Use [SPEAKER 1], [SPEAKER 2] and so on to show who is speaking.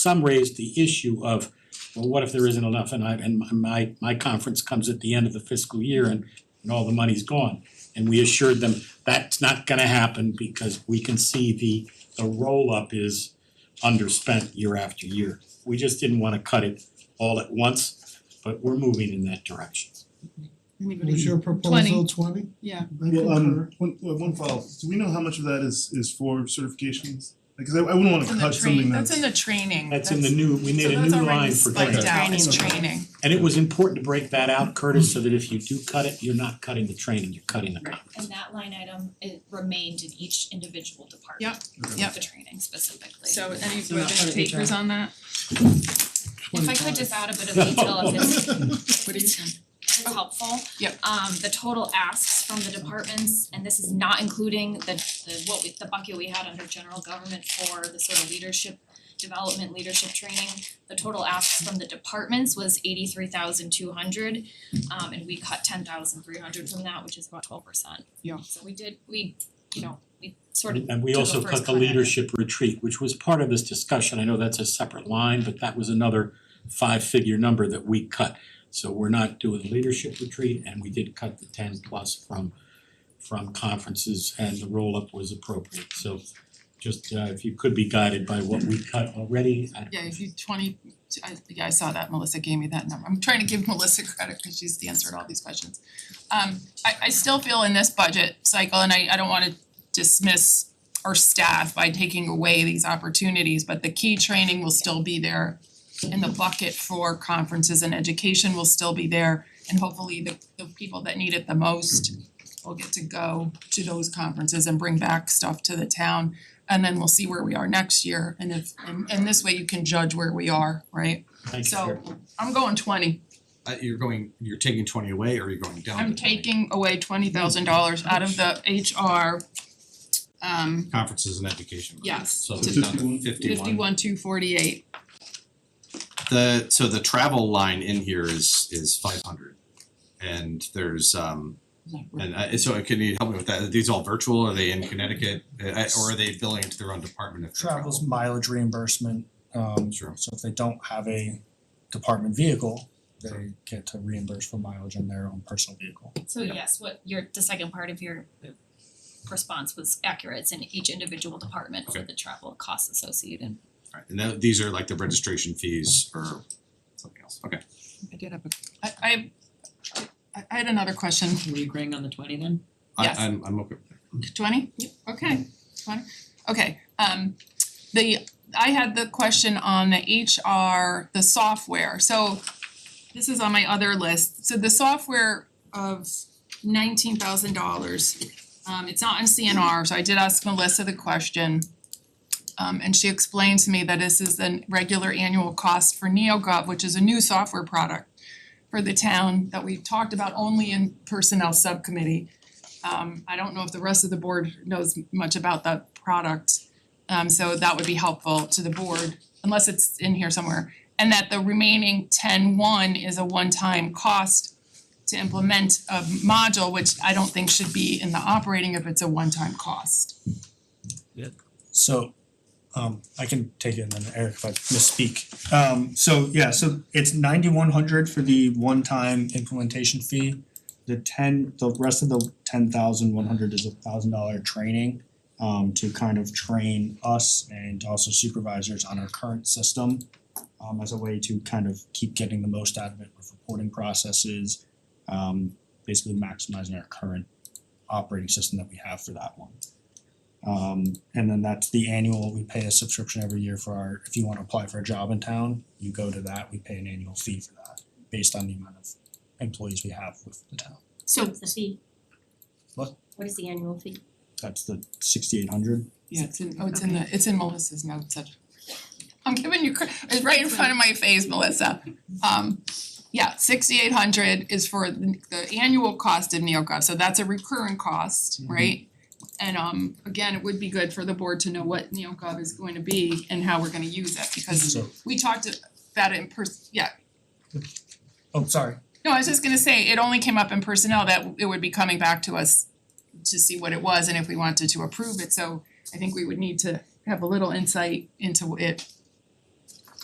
[SPEAKER 1] some raised the issue of, well, what if there isn't enough and I and my- my my conference comes at the end of the fiscal year and and all the money's gone. And we assured them that's not gonna happen because we can see the the roll up is underspent year after year. We just didn't wanna cut it all at once, but we're moving in that direction.
[SPEAKER 2] What was
[SPEAKER 3] Anybody,
[SPEAKER 2] your proposal, twenty?
[SPEAKER 3] yeah,
[SPEAKER 4] Well, um, one, well, one follow, do we know how much of that is is for certifications? Like, 'cause I I wouldn't wanna
[SPEAKER 3] it's in the
[SPEAKER 4] cut
[SPEAKER 3] train,
[SPEAKER 4] something that's.
[SPEAKER 3] that's in the training,
[SPEAKER 1] That's in the new, we made a new line for
[SPEAKER 3] So that's
[SPEAKER 1] training.
[SPEAKER 3] already spiked out, it's
[SPEAKER 4] Okay.
[SPEAKER 3] training,
[SPEAKER 1] And it was important to break that out, Curtis, so that if you do cut it, you're not cutting the training, you're cutting the conference.
[SPEAKER 5] And that line item it remained in each individual department.
[SPEAKER 4] Okay.
[SPEAKER 3] Yep.
[SPEAKER 5] The training specifically.
[SPEAKER 3] so any
[SPEAKER 6] So not part
[SPEAKER 3] other
[SPEAKER 6] of the
[SPEAKER 3] takers
[SPEAKER 6] job.
[SPEAKER 3] on that?
[SPEAKER 5] If I could just add a bit of detail if it's
[SPEAKER 3] What do you think?
[SPEAKER 5] if it's helpful.
[SPEAKER 3] Oh, Yep.
[SPEAKER 5] Um the total asks from the departments, and this is not including the the what we the bucket we had under general government for the sort of leadership development, leadership training. The total asks from the departments was eighty three thousand two hundred, um and we cut ten thousand three hundred from that, which is about twelve percent.
[SPEAKER 3] Yeah.
[SPEAKER 5] So we did, we, you know, we sort of
[SPEAKER 1] And we
[SPEAKER 5] took a
[SPEAKER 1] also
[SPEAKER 5] first
[SPEAKER 1] cut the
[SPEAKER 5] cut at it.
[SPEAKER 1] leadership retreat, which was part of this discussion, I know that's a separate line, but that was another five-figure number that we cut. So we're not doing the leadership retreat, and we did cut the ten plus from from conferences, and the roll-up was appropriate, so just uh if you could be guided by what we cut already, I
[SPEAKER 3] Yeah, if you twenty, I yeah, I saw that, Melissa gave me that number, I'm trying to give Melissa credit because she's answered all these questions. Um I I still feel in this budget cycle, and I I don't wanna dismiss our staff by taking away these opportunities, but the key training will still be there. And the bucket for conferences and education will still be there, and hopefully the the people that need it the most will get to go to those conferences and bring back stuff to the town and then we'll see where we are next year and if and and this way you can judge where we are, right?
[SPEAKER 1] thank you very
[SPEAKER 3] So I'm going twenty,
[SPEAKER 7] Uh you're going, you're taking twenty away or you're going down
[SPEAKER 3] I'm
[SPEAKER 7] to 20?
[SPEAKER 3] taking away twenty thousand dollars out of the HR um
[SPEAKER 7] Conferences and education. right?
[SPEAKER 3] Yes.
[SPEAKER 7] So
[SPEAKER 3] To
[SPEAKER 7] it's down to
[SPEAKER 4] 51.
[SPEAKER 7] fifty one.
[SPEAKER 3] fifty one two forty eight,
[SPEAKER 7] The, so the travel line in here is is five hundred. And there's um, and I, so can you help me with that? Are these all virtual? Are they in Connecticut? Uh, I- Or are they billing it to their own department if they travel?
[SPEAKER 8] travels mileage reimbursement, um
[SPEAKER 7] Sure.
[SPEAKER 8] so if they don't have a department vehicle, they get to reimburse for mileage on their own personal vehicle.
[SPEAKER 5] So yes, what your the second part of your response was accurate, it's in each individual department for
[SPEAKER 7] Okay.
[SPEAKER 5] the travel costs associated.
[SPEAKER 7] Alright, and tho- these are like the registration fees or something else, okay.
[SPEAKER 3] I did have a, I I I I had another question,
[SPEAKER 6] Are we agreeing on the twenty then?
[SPEAKER 7] I
[SPEAKER 3] Yes.
[SPEAKER 7] I'm I'm okay with that.
[SPEAKER 3] twenty? Okay, twenty, okay, um the, I had the question on the HR, the software, so this is on my other list, so the software of nineteen thousand dollars. Um it's not in CNR, so I did ask Melissa the question. Um and she explained to me that this is the regular annual cost for NeoGov, which is a new software product for the town that we talked about only in personnel subcommittee. Um I don't know if the rest of the board knows much about that product. Um so that would be helpful to the board, unless it's in here somewhere. And that the remaining ten one is a one-time cost to implement a module, which I don't think should be in the operating if it's a one-time cost.
[SPEAKER 8] So um I can take it and then Eric if I misspeak. Um so yeah, so it's ninety one hundred for the one time implementation fee. The ten, the rest of the ten thousand one hundred is a thousand dollar training um to kind of train us and also supervisors on our current system. um as a way to kind of keep getting the most out of it with reporting processes. Um basically maximizing our current operating system that we have for that one. Um and then that's the annual, we pay a subscription every year for our, if you wanna apply for a job in town, you go to that, we pay an annual fee for that based on the amount of employees we have with the town.
[SPEAKER 3] So
[SPEAKER 9] What's the fee?
[SPEAKER 8] What?
[SPEAKER 9] What is the annual fee?
[SPEAKER 8] That's the sixty eight hundred.
[SPEAKER 3] Yeah, it's in, oh, it's in the, it's in Melissa's notes. I- I'm giving you, cre- it's right in front of my face, Melissa. Um, yeah, sixty-eight hundred is for the the annual cost of NeoGov, so that's a recurring cost, right? And um, again, it would be good for the board to know what NeoGov is going to be and how we're gonna use it, because
[SPEAKER 8] So,
[SPEAKER 3] we talked about it in person, yeah,
[SPEAKER 8] oh, sorry,
[SPEAKER 3] no, I was just gonna say, it only came up in personnel that it would be coming back to us to see what it was and if we wanted to approve it, so I think we would need to have a little insight into it